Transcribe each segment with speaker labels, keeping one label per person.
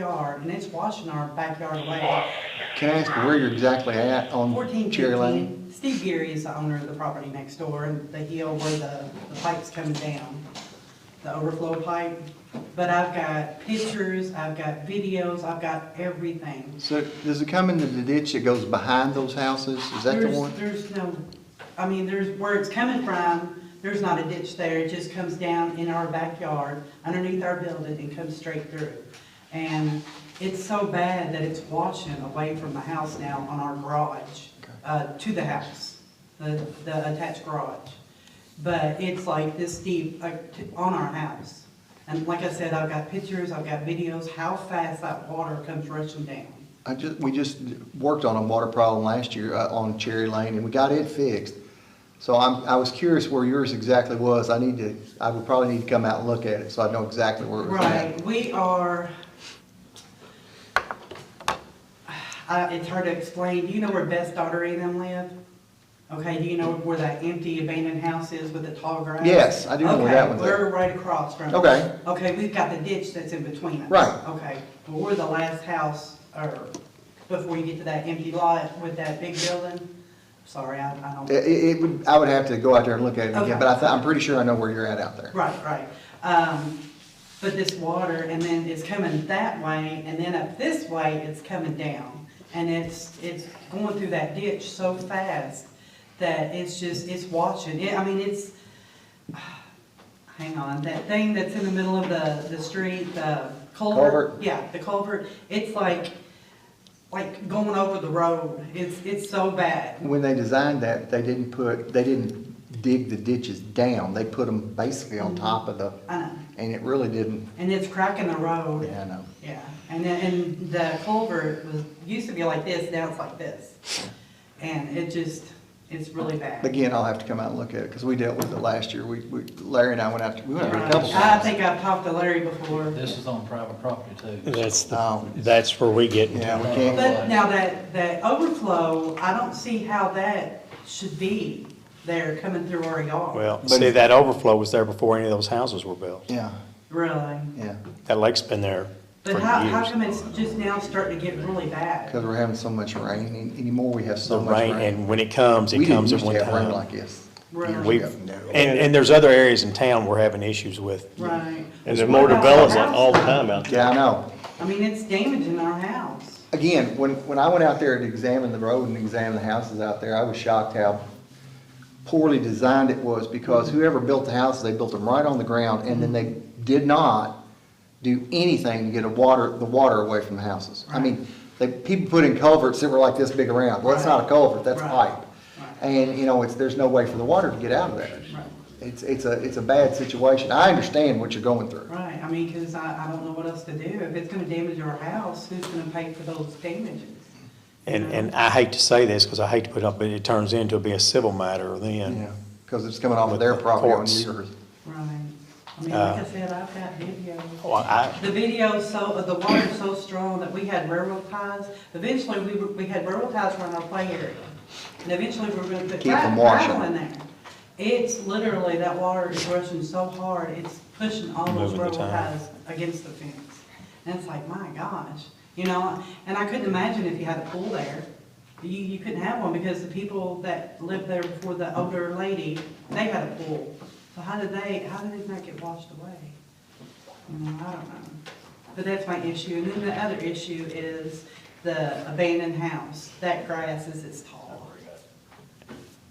Speaker 1: yard, and it's washing our backyard away.
Speaker 2: Can I ask where you're exactly at on
Speaker 1: Fourteen
Speaker 2: Cherry Lane?
Speaker 1: fifteen, Steve Geary is the owner of the property next door, and the hill where the, the pipe's coming down, the overflow pipe. But I've got pictures, I've got videos, I've got everything.
Speaker 2: So does it come into the ditch that goes behind those houses? Is that the
Speaker 1: There's-
Speaker 2: one?
Speaker 1: There's no, I mean, there's, where it's coming from, there's not a ditch there, it just comes down in our backyard, underneath our building, and comes straight through. And it's so bad that it's washing away from the house now on our garage, uh, to the house, the, the attached garage. But it's like this deep, like, t- on our house. And like I said, I've got pictures, I've got videos, how fast that water comes rushing down.
Speaker 2: I just, we just worked on a water problem last year uh, on Cherry Lane and we got it fixed. So I'm, I was curious where yours exactly was. I need to, I would probably need to come out and look at it so I know exactly where it was at.
Speaker 1: Right, we are, I- it's hard to explain, do you know where Best Daughter and them live? Okay, do you know where that empty abandoned house is with the tall grass?
Speaker 2: Yes, I do know where that one's
Speaker 1: Okay,
Speaker 2: at.
Speaker 1: we're right across from it.
Speaker 2: Okay.
Speaker 1: Okay, we've got the ditch that's in between us.
Speaker 2: Right.
Speaker 1: Okay, well, we're the last house, or, before you get to that empty lot with that big building, sorry, I I don't.
Speaker 2: It, it- it would, I would have to go out there and look at it again,
Speaker 1: Okay.
Speaker 2: but I, thi- I'm pretty sure I know where you're at out there.
Speaker 1: Right, right. Um, but this water, and then it's coming that way, and then up this way, it's coming down. And it's, it's going through that ditch so fast that it's just, it's watching. It, I mean, it's, hang on, that thing that's in the middle of the, the street, the culvert.
Speaker 2: Culvert.
Speaker 1: Yeah, the culvert. It's like, like going over the road. It's, it's so bad.
Speaker 2: When they designed that, they didn't put, they didn't dig the ditches down. They put them basically
Speaker 1: Mm-hmm.
Speaker 2: on top of the,
Speaker 1: I know.
Speaker 2: and it really didn't, um,
Speaker 1: And it's cracking the road.
Speaker 2: yeah, I know.
Speaker 1: Yeah, and then, and the culvert was, used to be like this, now it's like this. And it just, it's really bad.
Speaker 2: Again, I'll have to come out and look at it, because we dealt with it last year. We, we, Larry and I went out, to- we went out a couple
Speaker 1: I
Speaker 2: times.
Speaker 1: think I've talked to Larry before,
Speaker 3: This is on private property too.
Speaker 4: That's, the
Speaker 2: Um,
Speaker 4: that's where we get into.
Speaker 2: Yeah, we can't,
Speaker 1: but now that, that overflow, I don't see how that should be there coming through our yard.
Speaker 4: Well, see, that overflow was there before any of those houses were built.
Speaker 2: yeah,
Speaker 1: Really.
Speaker 2: yeah,
Speaker 4: That lake's been there for
Speaker 1: But how, how come
Speaker 4: years.
Speaker 1: it's just now starting to get really bad?
Speaker 2: because we're having so much rain, and anymore we have
Speaker 4: The
Speaker 2: so much
Speaker 4: rain,
Speaker 2: rain.
Speaker 4: and when it comes,
Speaker 2: We
Speaker 4: it
Speaker 2: didn't
Speaker 4: comes at
Speaker 2: used to
Speaker 4: one
Speaker 2: have rain Like
Speaker 4: time.
Speaker 2: this.
Speaker 1: Really?
Speaker 4: We've,
Speaker 2: ago,
Speaker 4: and,
Speaker 2: no.
Speaker 4: and there's other areas in town we're having issues with.
Speaker 1: Right.
Speaker 5: And there's more development all the time out there.
Speaker 2: Yeah, I know.
Speaker 1: I mean, it's damaging our house.
Speaker 2: Again, when, when I went out there to examine the road and examine the houses out there, I was shocked how poorly designed it was, because
Speaker 1: Mm-hmm.
Speaker 2: whoever built the houses, they built them right on the ground, and then they did not do anything to get a water, the water away from the houses. I mean, they, people put in culverts that were like this big around, well, that's not a culvert, that's
Speaker 1: Right.
Speaker 2: pipe. And, you know, it's, there's no way for the water to get out of there.
Speaker 1: Right.
Speaker 2: It's, it's a, it's a bad situation, I understand what you're going through.
Speaker 1: Right, I mean, because I, I don't know what else to do. If it's gonna damage our house, who's gonna pay for those damages?
Speaker 4: And, and I hate to say this, because I hate to put it up, but it turns into be a civil matter
Speaker 2: Yeah,
Speaker 4: then.
Speaker 2: because it's coming off of
Speaker 4: With
Speaker 2: their
Speaker 4: the
Speaker 2: property on
Speaker 4: courts.
Speaker 2: yours.
Speaker 1: Right. I mean, like I
Speaker 4: Uh,
Speaker 1: said, I've got video.
Speaker 4: Well, I,
Speaker 1: The video so, uh, the water's so strong that we had railroad ties. Eventually, we, were- we had railroad ties around our play area. And eventually, we were gonna put
Speaker 2: Keep
Speaker 1: gra-
Speaker 2: them washing.
Speaker 1: gravel in there. It's literally, that water is rushing so hard, it's pushing all those
Speaker 4: Moving the
Speaker 1: railroad
Speaker 4: tie.
Speaker 1: ties against the fence. And it's like, my gosh, you know, and I couldn't imagine if you had a pool there. You, you couldn't have one because the people that lived there before the older lady, they had a pool. So how did they, how did it not get washed away? You know, Mm, I don't know. But that's my issue. And then the other issue is the abandoned house. That grass is as tall.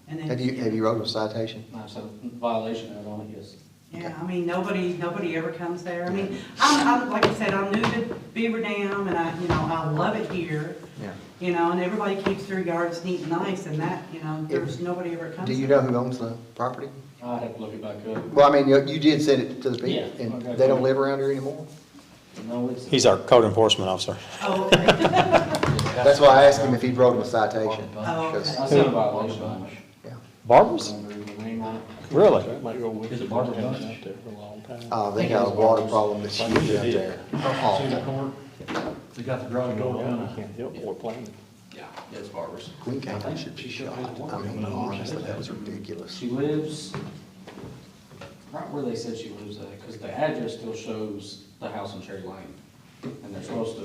Speaker 1: And
Speaker 2: Have you, have
Speaker 1: it's,
Speaker 2: you wrote a citation?
Speaker 3: That's a violation of it on it, yes.
Speaker 1: yeah, I mean, nobody, nobody ever comes there. I mean, I'm, I'm, like I said, I'm new to Beaver Dam and I, you know, I love it here.
Speaker 2: Yeah.
Speaker 1: You know, and everybody keeps their yards neat and nice and that, you know, there's nobody ever comes.
Speaker 2: Do you
Speaker 1: there.
Speaker 2: know who owns the property?
Speaker 3: I'd have to look it back up.
Speaker 2: Well, I mean, you, you did send it to the people,
Speaker 3: Yeah.
Speaker 2: and they don't live around here anymore?
Speaker 3: No, it's.
Speaker 4: he's our code enforcement officer.
Speaker 1: Oh, okay.
Speaker 2: That's why I asked him if he'd wrote him a citation.
Speaker 1: Oh, okay.
Speaker 2: because-
Speaker 3: I seen a violation on it.
Speaker 2: yeah.
Speaker 4: Barbara's?
Speaker 3: Remember the name on it.
Speaker 4: Really?
Speaker 3: Is it Barbara Bunch?
Speaker 5: Out there for a long time.
Speaker 2: Uh, they got a water problem that's huge out there.
Speaker 3: Cedar
Speaker 2: Oh,
Speaker 3: Court. They got the garage door
Speaker 5: You
Speaker 3: kind of.
Speaker 5: can't help it, we're planning.
Speaker 3: Yeah, it's Barbara's.
Speaker 2: Queen County should be shot. I mean, honestly, that was ridiculous.
Speaker 3: She lives right where they said she lives at, because the address still shows the house on Cherry Lane. and they're supposed to